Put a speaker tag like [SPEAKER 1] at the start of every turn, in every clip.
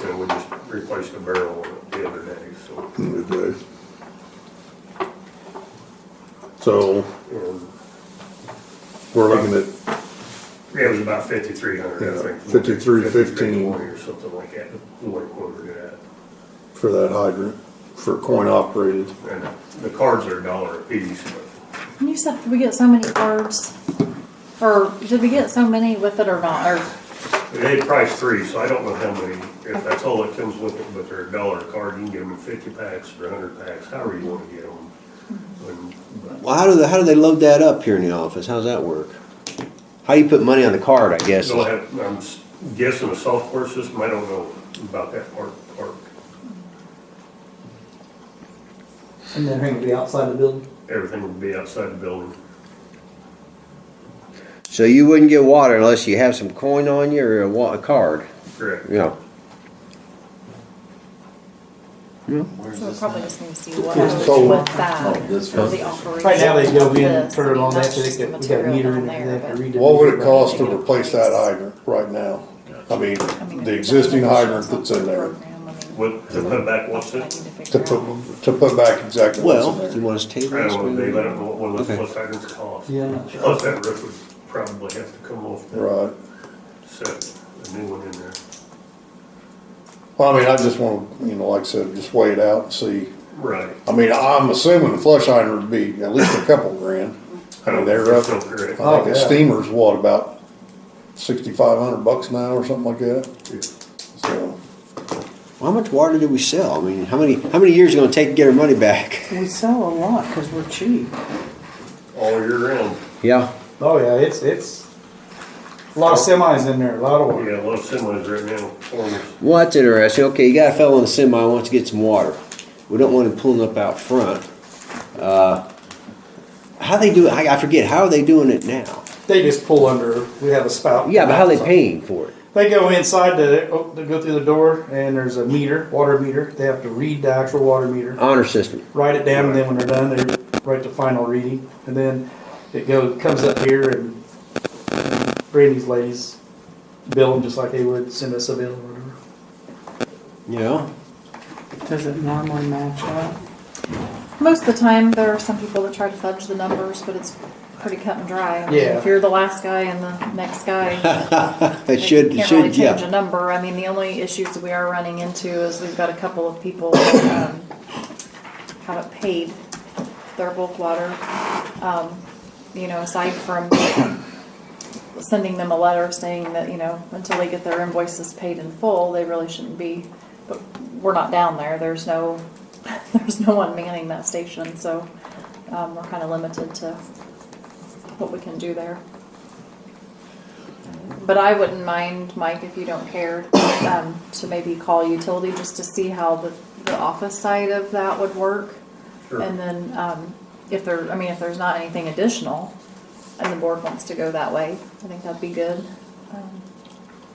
[SPEAKER 1] so we just replaced the barrel the other day, so.
[SPEAKER 2] Okay. So
[SPEAKER 1] um,
[SPEAKER 2] we're looking at,
[SPEAKER 1] It was about fifty-three hundred,
[SPEAKER 2] Yeah,
[SPEAKER 1] I think.
[SPEAKER 2] 53.15.
[SPEAKER 1] 53.20 Or something like that, the way quoted it
[SPEAKER 2] for that hydrant, for coin operated.
[SPEAKER 1] at. And the cards are a dollar a piece, but
[SPEAKER 3] You said we get so many cards, or did we get so many with it or not? Or
[SPEAKER 1] they priced three, so I don't know how many, if that's all that comes with it, but they're a dollar a card, you can get them in fifty packs or hundred packs, however you wanna get them. And- but
[SPEAKER 4] Well, how do they, how do they load that up here in the office? How's that work? How do you put money on the card? I guess.
[SPEAKER 1] They'll have, I'm s- guessing a software system, I don't know about that part, part,
[SPEAKER 5] And then everything will be outside the building?
[SPEAKER 1] everything would be outside the building.
[SPEAKER 4] So you wouldn't get water unless you have some coin on you or a, wa- a card.
[SPEAKER 1] Correct.
[SPEAKER 4] Yeah.
[SPEAKER 3] so we probably just need to see what
[SPEAKER 5] It's
[SPEAKER 3] happens
[SPEAKER 2] solar.
[SPEAKER 3] with that
[SPEAKER 6] Oh, this
[SPEAKER 3] for the
[SPEAKER 6] one.
[SPEAKER 3] operation.
[SPEAKER 5] Right now, they go in and
[SPEAKER 3] this,
[SPEAKER 5] turn it
[SPEAKER 3] I mean,
[SPEAKER 5] on that,
[SPEAKER 3] that's
[SPEAKER 5] so
[SPEAKER 3] just
[SPEAKER 5] they
[SPEAKER 3] the
[SPEAKER 5] got, we got a
[SPEAKER 3] material
[SPEAKER 5] meter
[SPEAKER 3] down
[SPEAKER 5] in it,
[SPEAKER 3] there,
[SPEAKER 5] they have
[SPEAKER 3] but-
[SPEAKER 5] to redo. the
[SPEAKER 2] What would it
[SPEAKER 5] meter.
[SPEAKER 2] cost to replace that hydrant right now? I mean,
[SPEAKER 3] I mean,
[SPEAKER 2] the
[SPEAKER 3] if
[SPEAKER 2] existing
[SPEAKER 3] it's a
[SPEAKER 2] hydrant that's in there,
[SPEAKER 3] program, I mean,
[SPEAKER 1] What, to put back what's
[SPEAKER 3] I
[SPEAKER 1] in?
[SPEAKER 3] need to figure
[SPEAKER 2] to
[SPEAKER 3] out.
[SPEAKER 2] put, to put back exactly what's in
[SPEAKER 4] Well,
[SPEAKER 2] there.
[SPEAKER 4] you want us to table
[SPEAKER 1] I
[SPEAKER 4] this?
[SPEAKER 1] don't know, they let them,
[SPEAKER 4] one?
[SPEAKER 1] know what those
[SPEAKER 4] Okay.
[SPEAKER 1] plus items cost.
[SPEAKER 5] Yeah, I'm not sure.
[SPEAKER 1] Plus that roof would probably have to come off to
[SPEAKER 2] Right.
[SPEAKER 1] set a new one in there.
[SPEAKER 2] Well, I mean, I just want to, you know, like I said, just wait it out and see.
[SPEAKER 1] Right.
[SPEAKER 2] I mean, I'm assuming the flush hydrant would be at least a couple grand. I mean, they're up.
[SPEAKER 1] So correct.
[SPEAKER 2] I think
[SPEAKER 5] Oh,
[SPEAKER 2] the
[SPEAKER 5] yeah.
[SPEAKER 2] steamer's what, about sixty-five hundred bucks now or something like that?
[SPEAKER 1] Yeah.
[SPEAKER 2] So,
[SPEAKER 4] How much water do we sell? I mean, how many how many years is it going to take to get our money back?
[SPEAKER 7] We sell a lot because we're cheap.
[SPEAKER 1] All year round.
[SPEAKER 4] Yeah.
[SPEAKER 5] Oh, yeah, it's, it's, a lot of semis in there, a lot of
[SPEAKER 1] Yeah,
[SPEAKER 5] water.
[SPEAKER 1] a lot of semis right now, farmers.
[SPEAKER 4] Well, that's interesting. Okay, you got a fellow in the semi who wants to get some water. We don't want him pulling up out front. Uh, how they do it? I, I forget. How are they doing it now?
[SPEAKER 5] They just pull under, we have a spout.
[SPEAKER 4] Yeah, but how are they paying for it?
[SPEAKER 5] They go inside to, oh, they go through the door and there's a meter, water meter. They have to read the actual water meter,
[SPEAKER 4] Honor system.
[SPEAKER 5] write it down, and then when they're done, they write the final reading. And then it goes, comes up here and Brandy's ladies bill them just like they would send us a bill or whatever.
[SPEAKER 4] You know.
[SPEAKER 7] Does it normally match up?
[SPEAKER 3] Most of the time, there are some people that try to fudge the numbers, but it's pretty cut and dry. I mean,
[SPEAKER 5] Yeah.
[SPEAKER 3] If you're the last guy and the next guy,
[SPEAKER 4] It
[SPEAKER 3] Like,
[SPEAKER 4] should,
[SPEAKER 3] you
[SPEAKER 4] it
[SPEAKER 3] Can't really
[SPEAKER 4] should,
[SPEAKER 3] change a
[SPEAKER 4] yeah.
[SPEAKER 3] number, I mean, the only issues that we are running into is we've got a couple of people that um, haven't paid their bulk water. Um, You know, aside from sending them a letter saying that, you know, until they get their invoices paid in full, they really shouldn't be. But we're not down there, there's no, there's no one manning that station, so um, we're kind of limited to what we can do there. But I wouldn't mind, Mike, if you don't care, um, to maybe call utility just to see how the, the office side of that would work.
[SPEAKER 1] Sure.
[SPEAKER 3] And then, um, if there, I mean, if there's not anything additional and the board wants to go that way, I think that'd be good. Um,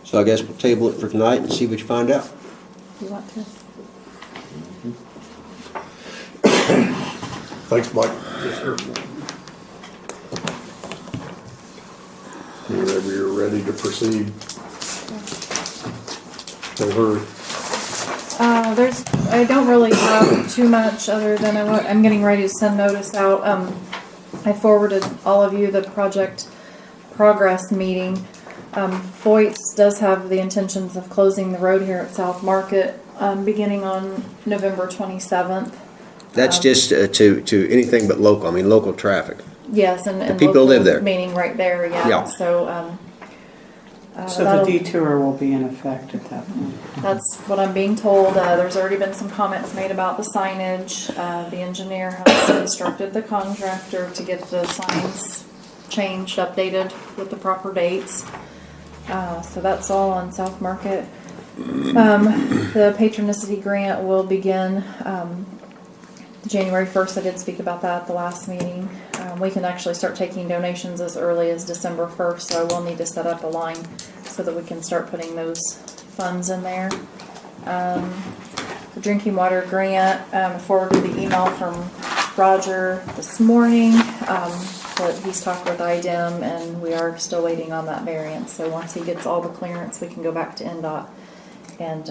[SPEAKER 4] So I guess we'll table it for tonight and see what you find out.
[SPEAKER 3] You want to?
[SPEAKER 2] thanks, Mike.
[SPEAKER 1] Yes, sir.
[SPEAKER 2] Whenever you're ready to proceed. Don't hurry.
[SPEAKER 3] Uh, there's, I don't really have too much other than I want, I'm getting ready to send notice out. Um, I forwarded all of you the project progress meeting. Um, Foyt's does have the intentions of closing the road here at South Market, um, beginning on November twenty-seventh.
[SPEAKER 4] That's just uh, to, to anything but local, I mean, local traffic.
[SPEAKER 3] Yes, and, and.
[SPEAKER 4] people
[SPEAKER 3] local
[SPEAKER 4] live there.
[SPEAKER 3] Meeting right there,
[SPEAKER 4] Yeah.
[SPEAKER 3] yeah, so, um. uh,
[SPEAKER 7] So the
[SPEAKER 3] that'll-
[SPEAKER 7] detour will be in effect at that point.
[SPEAKER 3] That's what I'm being told. Uh, there's already been some comments made about the signage. Uh, the engineer has instructed the contractor to get the signs changed, updated with the proper dates. Uh, so that's all on South Market. Um, the patronicity grant will begin, um, January first. I did speak about that at the last meeting. Um, we can actually start taking donations as early as December first, so I will need to set up a line so that we can start putting those funds in there. Um, the drinking water grant, um, forwarded the email from Roger this morning, um, that he's talked with IDEM and we are still waiting on that variance. So once he gets all the clearance, we can go back to NDOT and